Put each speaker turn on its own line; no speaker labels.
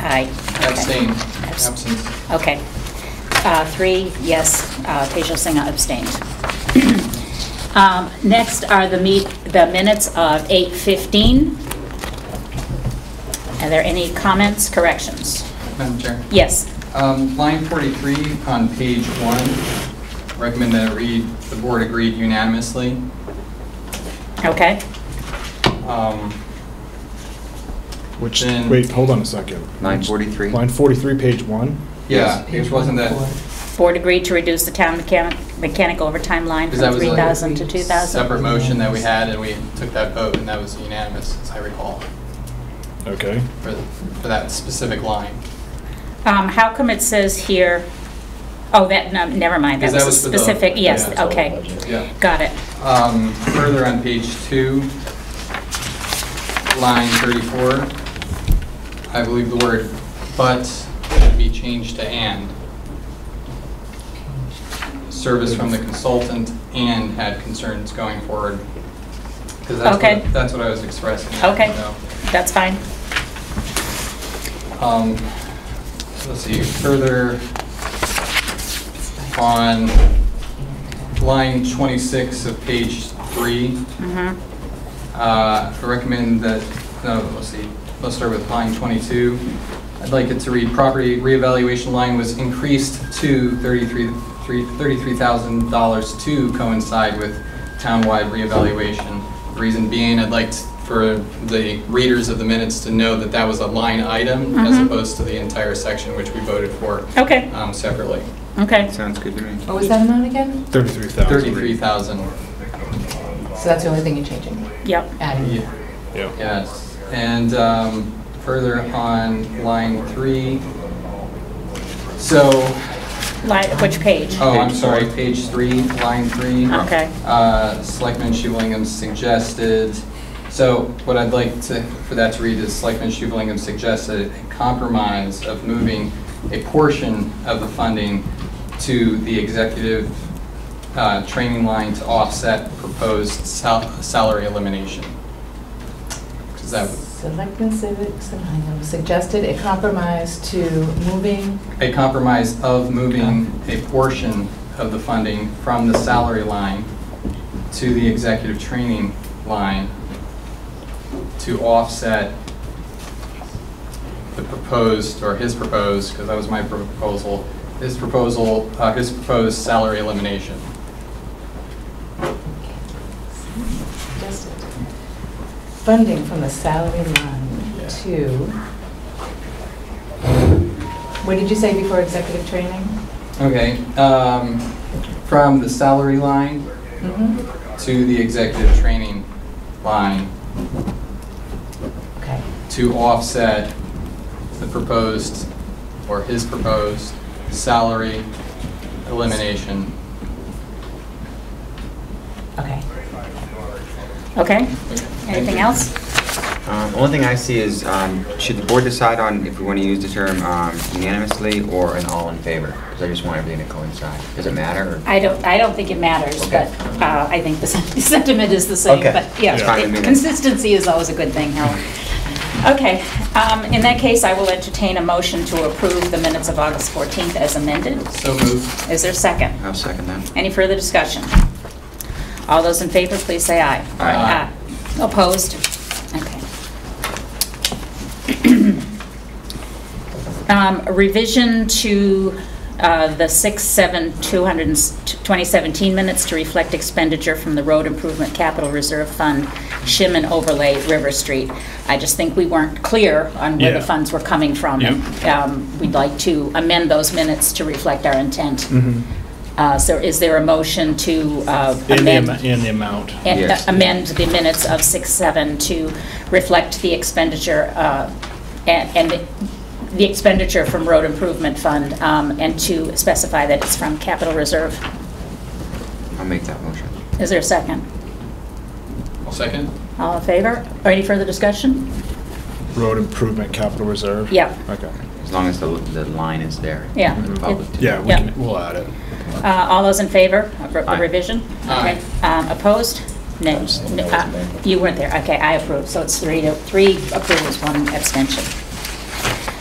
Aye. Okay.
Abstain,
Abs-
absence.
Okay. Uh, Three, yes, uh, Tejal Singh abstained. Um, Next are the meet, the minutes of 8:15. Are there any comments, corrections?
Madam Chair?
Yes.
Um, Line 43 on page one, recommend that it read, "The board agreed unanimously."
Okay.
Um,
Which,
Then-
wait, hold on a second.
Line 43?
Line 43, page one.
Yeah, it wasn't that,
Board agreed to reduce the town mechan- mechanic overtime line
because that
from
was
3,000 to
a
2,000?
separate motion that we had, and we took that vote, and that was unanimous, as I recall,
Okay.
for for that specific line.
Um, How come it says here, oh, that, no, never mind, that
Because
was a
that was for the-
specific, yes,
yeah, total
okay.
Yeah.
Got it.
Um, Further on page two, line 34, I believe the word "but" should be changed to "and." Service from the consultant and had concerns going forward. 'Cause that's what-
Okay.
That's what I was expressing. I
Okay,
don't know.
that's fine.
Um, Let's see, further on line 26 of page three,
Mhm.
Uh, I recommend that, no, let's see, let's start with line 22. I'd like it to read, "Property reevaluation line was increased to $33 three- $33,000 to coincide with townwide reevaluation." Reason being, I'd like t- for the readers of the minutes to know that that was a line item as
Mhm.
opposed to the entire section, which we voted for
Okay,
um, separately.
okay.
Sounds good to me.
What was that amount again?
33,000.
33,000,
So that's the only thing you're changing,
Yep.
adding?
yeah.
Yeah.
Yes, and um, further on line three, so,
Li- Which page?
oh, I'm
Page
sorry,
four.
page three, line three.
Okay.
Uh, Selectman Shublingham suggested, so what I'd like to, for that to read is Selectman Shublingham suggested a compromise of moving a portion of the funding to the executive uh, training line to offset proposed sal- salary elimination. Because that would
Selectmen Civics and Hingham suggested a compromise to moving,
a compromise of moving a portion of the funding from the salary line to the executive training line to offset the proposed, or his proposed, because that was my proposal, his proposal, uh, his proposed salary elimination.
suggested funding from the salary
Yeah.
line to, what did you say before executive training?
Okay, um, from the salary line
Mhm.
to the executive training line
Okay,
to offset the proposed, or his proposed, salary elimination,
okay.
Okay. Anything else?
Um, Only thing I see is, um, should the board decide on if we want to use the term um, unanimously or an all in favor? Because I just want everything to coincide. Does it matter? or-
I don't, I don't think it matters, but
Okay.
uh, I think the sen- sentiment is the same.
Okay.
But yeah,
That's fine
with me
it-
then.
consistency is always a good thing, Howard. Okay, um, in that case, I will entertain a motion to approve the minutes of August 14th as amended.
so moved.
Is there a second?
I'll second that.
Any further discussion? All those in favor, please say aye. Aye.
Aye.
Opposed? Okay. Um, Revision to uh, the 6/7/2017 minutes to reflect expenditure from the Road Improvement Capital Reserve Fund, shim and overlay River Street. I just think we weren't clear on where the
Yeah.
funds were coming from. Um, We'd like to amend those minutes to reflect our intent.
Mhm.
Uh, So is there a motion to uh,
And the, am-
amend?
and the amount.
and, uh,
Yes.
Amend the minutes of 6/7 to reflect the expenditure uh, and and the- the expenditure from Road Improvement Fund um, and to specify that it's from Capital Reserve?
I'll make that motion.
Is there a second?
I'll second.
All in favor? Or any further discussion?
Road improvement capital reserve?
Yeah.
Okay.
As long as the the line is there.
Yeah.
for the public to-
Yeah, we
Yeah.
can, we'll add it.
Uh, All those in favor of re- the
Aye.
revision?
Aye.
Okay. Um, Opposed? No.
Abstain.
No, uh, You weren't there. Okay, I approve. So it's three to, three approvals, one abstention.